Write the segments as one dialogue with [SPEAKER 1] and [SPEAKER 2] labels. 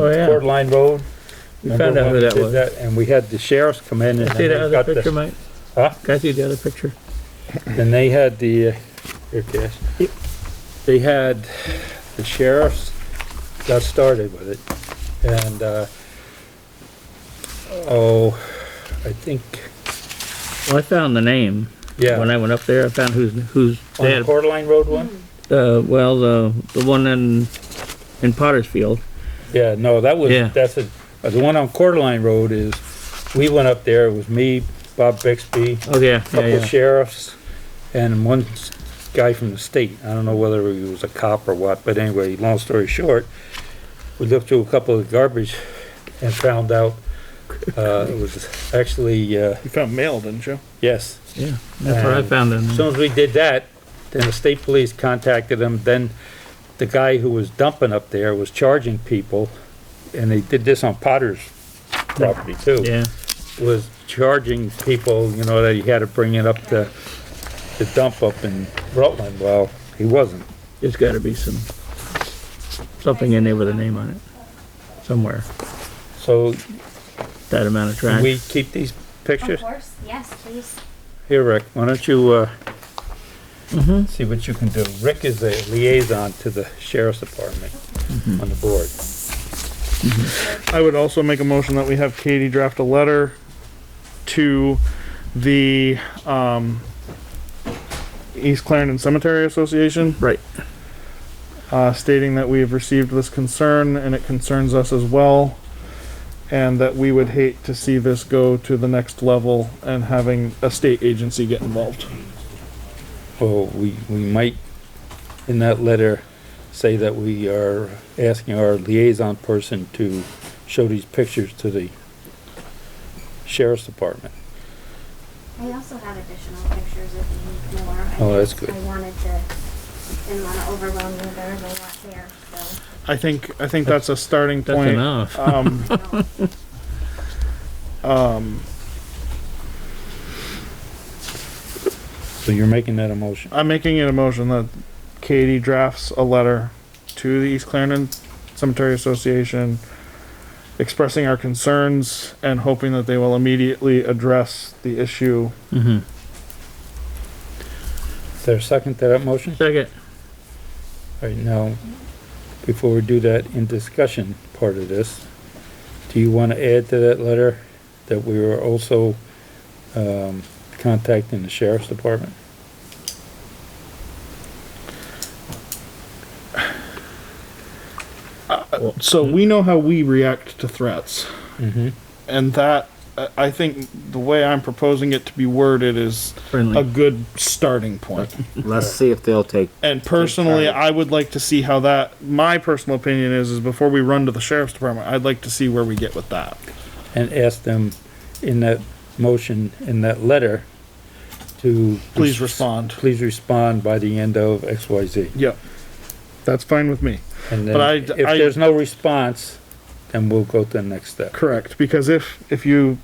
[SPEAKER 1] Oh, yeah.
[SPEAKER 2] Mm-hmm. Court Line Road.
[SPEAKER 1] We found out who that was.
[SPEAKER 2] And we had the sheriffs come in and.
[SPEAKER 1] Can I see
[SPEAKER 2] they
[SPEAKER 1] that
[SPEAKER 2] got
[SPEAKER 1] other
[SPEAKER 2] the-
[SPEAKER 1] picture, Mike?
[SPEAKER 2] Huh?
[SPEAKER 1] Can I see the other picture?
[SPEAKER 2] And they had the, uh, here, Cash.
[SPEAKER 1] Yep.
[SPEAKER 2] They had, the sheriffs got started with it, and, uh, oh, I think,
[SPEAKER 1] Well, I found the name.
[SPEAKER 2] yeah.
[SPEAKER 1] When I went up there, I found who's, who's
[SPEAKER 2] On the
[SPEAKER 1] dead.
[SPEAKER 2] Court Line Road one?
[SPEAKER 1] Uh, well, the, the one in, in Pottersfield.
[SPEAKER 2] Yeah, no, that was,
[SPEAKER 1] Yeah.
[SPEAKER 2] that's a, uh, the one on Court Line Road is, we went up there, it was me, Bob Bixby,
[SPEAKER 1] Oh, yeah, yeah,
[SPEAKER 2] couple
[SPEAKER 1] yeah.
[SPEAKER 2] sheriffs, and one s- guy from the state. I don't know whether he was a cop or what, but anyway, long story short, we looked through a couple of garbage and found out, uh, it was actually, uh,
[SPEAKER 3] You found mail, didn't you?
[SPEAKER 2] yes.
[SPEAKER 1] Yeah, that's
[SPEAKER 4] Uh,
[SPEAKER 1] where I
[SPEAKER 2] And
[SPEAKER 1] found it.
[SPEAKER 2] As soon as we did that, then the state police contacted them, then the guy who was dumping up there was charging people, and they did this on Potter's property too
[SPEAKER 1] Yeah,
[SPEAKER 2] was charging people, you know, that he had to bring it up to the dump up in Rutland. Well, he wasn't.
[SPEAKER 1] there's gotta be some, something in there with a name on it, somewhere,
[SPEAKER 2] So
[SPEAKER 1] that amount of
[SPEAKER 2] can
[SPEAKER 1] trash.
[SPEAKER 2] we keep these
[SPEAKER 5] Of
[SPEAKER 2] pictures?
[SPEAKER 5] course, yes, please.
[SPEAKER 2] Here, Rick, why don't you, uh, see what you can do. Rick is a liaison to the sheriff's department on the board.
[SPEAKER 3] I would also make a motion that we have Katie draft a letter to the, um, East Clarendon Cemetery Association,
[SPEAKER 1] Right,
[SPEAKER 3] uh, stating that we have received this concern and it concerns us as well. And that we would hate to see this go to the next level and having a state agency get involved.
[SPEAKER 2] Well, we, we might, in that letter, say that we are asking our liaison person to show these pictures to the sheriff's department.
[SPEAKER 5] I also have additional pictures if you need more. I
[SPEAKER 2] Oh, that's
[SPEAKER 5] just-
[SPEAKER 2] good.
[SPEAKER 5] I wanted to, didn't want to overwhelm you, there was a lot there, so.
[SPEAKER 3] I think, I think that's a starting
[SPEAKER 1] that's
[SPEAKER 3] point.
[SPEAKER 1] enough.
[SPEAKER 4] Uh,
[SPEAKER 3] Um,
[SPEAKER 5] you know.
[SPEAKER 3] um,
[SPEAKER 2] So you're making that a motion?
[SPEAKER 3] I'm making it a motion that Katie drafts a letter to the East Clarendon Cemetery Association expressing our concerns and hoping that they will immediately address the issue.
[SPEAKER 1] Mhm.
[SPEAKER 2] Mm-hmm. Is there a second to that motion?
[SPEAKER 1] Second,
[SPEAKER 2] All right, now, before we do that, in discussion part of this, do you want to add to that letter that we were also, um, contacting the sheriff's department?
[SPEAKER 3] So we know how we react to threats.
[SPEAKER 2] Mm-hmm.
[SPEAKER 3] And that, I- I think the way I'm proposing it to be worded is a
[SPEAKER 4] uh,
[SPEAKER 1] friendly.
[SPEAKER 3] good starting point.
[SPEAKER 6] Let's see if they'll take.
[SPEAKER 3] And personally, I would like to see how that, my personal opinion is, is before we run to the sheriff's department, I'd like to see where we get with that.
[SPEAKER 2] And ask them in that motion, in that letter, to.
[SPEAKER 3] Please respond.
[SPEAKER 2] Please respond by the end of X, Y, Z.
[SPEAKER 3] Yep. That's fine with me.
[SPEAKER 2] And then,
[SPEAKER 3] But I-
[SPEAKER 2] if
[SPEAKER 3] I-
[SPEAKER 2] there's no response, then we'll go to the next step.
[SPEAKER 3] Correct, because if, if you,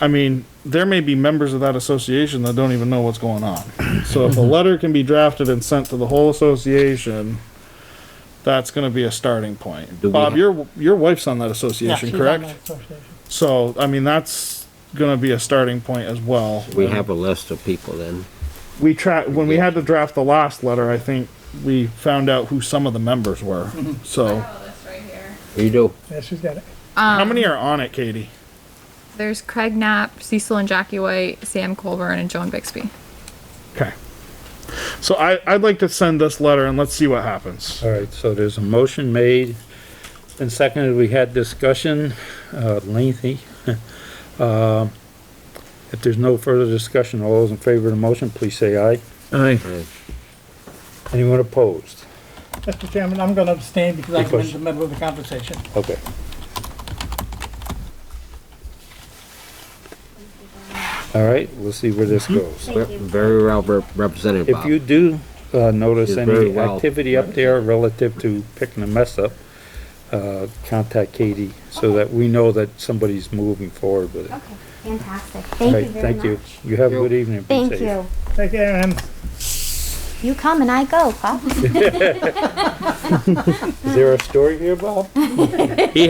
[SPEAKER 3] I mean, there may be members of that association that don't even know what's going on. So if a letter can be drafted and sent to the whole association, that's gonna be a starting point.
[SPEAKER 6] Do we
[SPEAKER 3] Bob,
[SPEAKER 6] ha-
[SPEAKER 3] your, your wife's on that association, correct? So, I mean, that's gonna be a starting point as well.
[SPEAKER 6] We have a list of people then.
[SPEAKER 3] We try, when we had to draft the last letter, I think we found out who some of the members were, so.
[SPEAKER 6] You do.
[SPEAKER 3] How many are on it, Katie?
[SPEAKER 7] There's Craig Knapp, Cecil and Jackie White, Sam Colburn, and Joan Bixby.
[SPEAKER 3] Okay. So I, I'd like to send this letter and let's see what happens.
[SPEAKER 2] All right, so there's a motion made and seconded. We had discussion, uh, lengthy. Um, If there's no further discussion, all those in favor of the motion, please say aye.
[SPEAKER 1] Aye,
[SPEAKER 2] Anyone opposed?
[SPEAKER 4] Mr. Chairman, I'm gonna abstain because I was
[SPEAKER 2] Because-
[SPEAKER 4] in the middle of the conversation.
[SPEAKER 2] Okay. All right, we'll see where this goes.
[SPEAKER 5] Thank you.
[SPEAKER 6] Very well rep- represented,
[SPEAKER 2] If
[SPEAKER 6] Bob.
[SPEAKER 2] you do, uh, notice
[SPEAKER 6] Did very
[SPEAKER 2] any
[SPEAKER 6] well.
[SPEAKER 2] activity up there relative to picking a mess up, uh, contact Katie so that we know that somebody's moving forward with it.
[SPEAKER 5] Okay, fantastic.
[SPEAKER 2] All
[SPEAKER 5] Thank
[SPEAKER 2] right,
[SPEAKER 5] you very
[SPEAKER 2] thank you.
[SPEAKER 5] much.
[SPEAKER 2] You have a good evening. Be
[SPEAKER 5] Thank
[SPEAKER 2] safe.
[SPEAKER 5] you.
[SPEAKER 4] Take care, and
[SPEAKER 5] You come and I go, Bob.
[SPEAKER 2] Is there a story here, Bob?